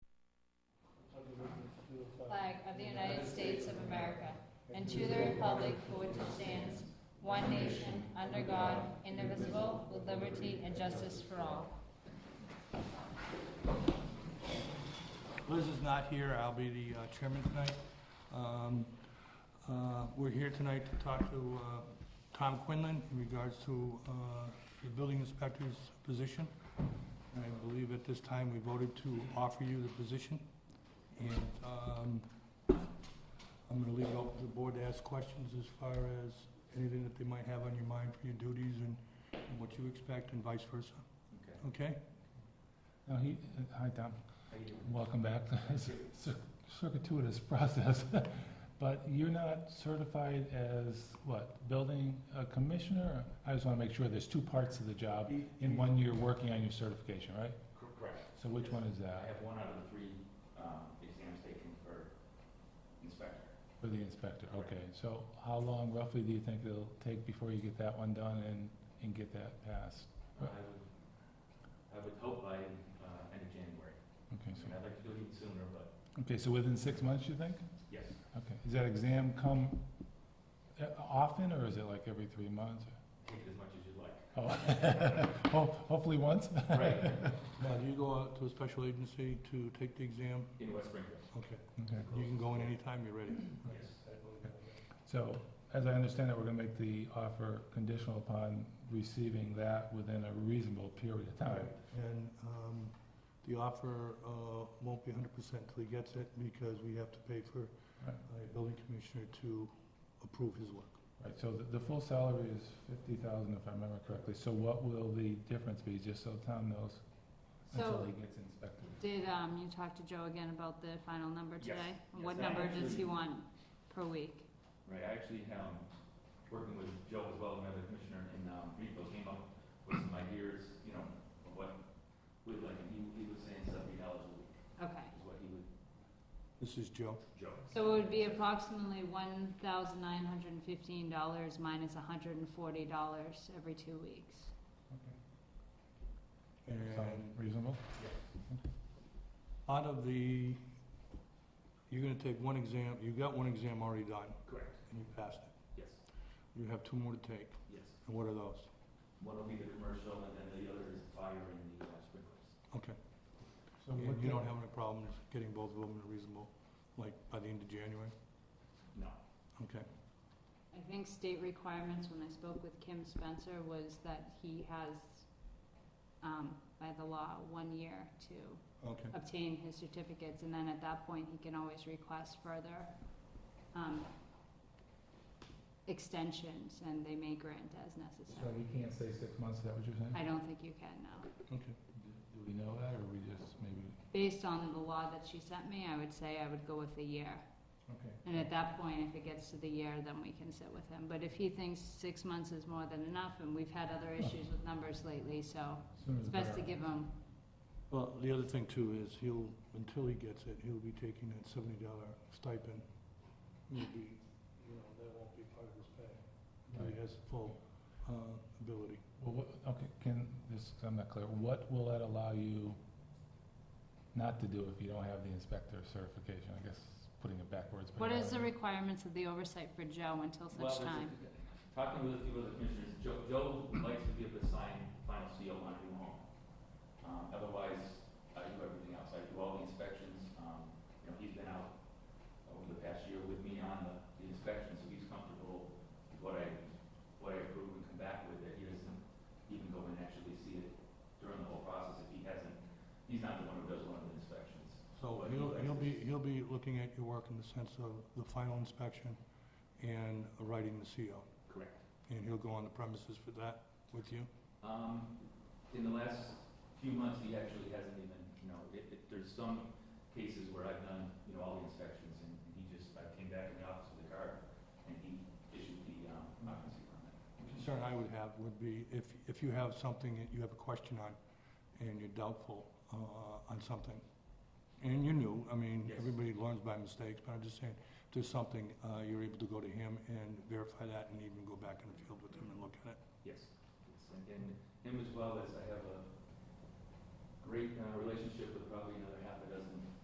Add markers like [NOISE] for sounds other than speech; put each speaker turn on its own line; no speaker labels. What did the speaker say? flag of the United States of America and to the republic for which it stands, one nation, under God, indivisible, with liberty and justice for all.
Liz is not here, I'll be the uh, chairman tonight. Um, uh, We're here tonight to talk to uh, Tom Quinlan in regards to uh, the building inspector's position. I believe at this time we voted to offer you the position. And um, I'm going to leave it open to the board to ask questions as far as anything that they might have on your mind for your duties and and what you expect and vice versa. Okay?
No, he, uh, hi, Tom. Welcome back. [LAUGHS] It's a cir- circuitous process, [LAUGHS] but you're not certified as what, building uh, commissioner? I just want to make sure there's two parts of the job. In one, you're working on your certification, right?
Correct.
So which one is
I
that
have one out of the three um, exams taken for inspector.
for the inspector? Okay, so how long roughly do you think it'll take before you get that one done and, and get that passed?
I would, I would hope by uh, end of January. I
Okay,
mean,
so,
I'd like to do it even sooner, but
okay, so within six months, you think?
yes,
Okay, does that exam come uh, often, or is it like every three months?
take it as much as you'd like.
[LAUGHS] Oh, ho- hopefully once. [LAUGHS]
Right,
Now, do you go out to a special agency to take the exam?
in West Springfield,
Okay.
Okay.
You can go in anytime you're ready.
yes.
So, as I understand it, we're gonna make the offer conditional upon receiving that within a reasonable period of time.
And um, the offer uh, won't be hundred percent till he gets it, because we have to pay for
Right.
a building commissioner to approve his work.
Right, so the, the full salary is fifty thousand, if I remember correctly. So what will the difference be, just so Tom knows, until
So,
he gets inspected?
did um, you talk to Joe again about the final number
Yes.
today?
Yes,
What
I
number does
actually-
he want per week?
Right, I actually, um, working with Joe as well, another commissioner in, um, Greenfield, came up with some ideas, you know, of what, we'd like, and he, he was saying seventy dollars a week
Okay.
is what he would,
This is Joe.
Joe.
So it would be approximately one thousand nine hundred and fifteen dollars minus hundred and forty dollars every two weeks.
Sound
And
reasonable?
out of the, you're gonna take one exam, you got one exam already done,
Correct.
and you passed it.
Yes,
You have two more to take,
yes.
and what are those?
One will be the commercial, and then the other is fire and the uh, sprinklers.
Okay.
So
And
what
you
the-
don't have any problems getting both of them in a reasonable, like, by the end of January?
No.
Okay.
I think state requirements, when I spoke with Kim Spencer, was that he has, um, by the law, one year to
Okay.
obtain his certificates, and then at that point, he can always request further, um, extensions, and they may grant as
So
necessary.
we can't say six months, is that what you're saying?
I don't think you can now.
Okay.
Do we know that, or we just maybe?
Based on the law that she sent me, I would say I would go with a year.
Okay.
And at that point, if it gets to the year, then we can sit with him. But if he thinks six months is more than enough, and we've had other issues with numbers lately, so
Sooner
it's
the
best to
better.
give him,
Well, the other thing too is he'll, until he gets it, he'll be taking that seventy dollar stipend. It'll be, you know, that won't be part of his pay, until he has the full, uh, ability.
Well, what, okay, can, this, I'm not clear, what will that allow you not to do if you don't have the inspector certification? I guess, putting it backwards. but-
what is the requirements of the oversight for Joe until
Well,
such time?
there's- Talking with a few other commissioners, Joe, Joe likes to give the signed final seal on every home. Um, otherwise, I do everything else. I do all the inspections. Um, you know, he's been out over the past year with me on the, the inspections, so he's comfortable with what I, what I approve and come back with, that he doesn't even go and actually see it during the whole process if he hasn't, he's not the one who does one of the inspections.
So
But he
he'll,
likes
he'll
to-
be, he'll be looking at your work in the sense of the final inspection and writing the CO.
Correct.
And he'll go on the premises for that with you?
Um, in the last few months, he actually hasn't even, you know, it, it, there's some cases where I've done, you know, all the inspections and he just, I came back in the office with a card and he issued the, um, occupancy permit.
The concern I would have would be if, if you have something that you have a question on and you're doubtful uh, on something, and you knew, I mean,
Yes.
everybody learns by mistakes, but I'm just saying, if there's something, uh, you're able to go to him and verify that and even go back in the field with him and look at it.
Yes, yes, and, and him as well as I have a great, uh, relationship with probably another half a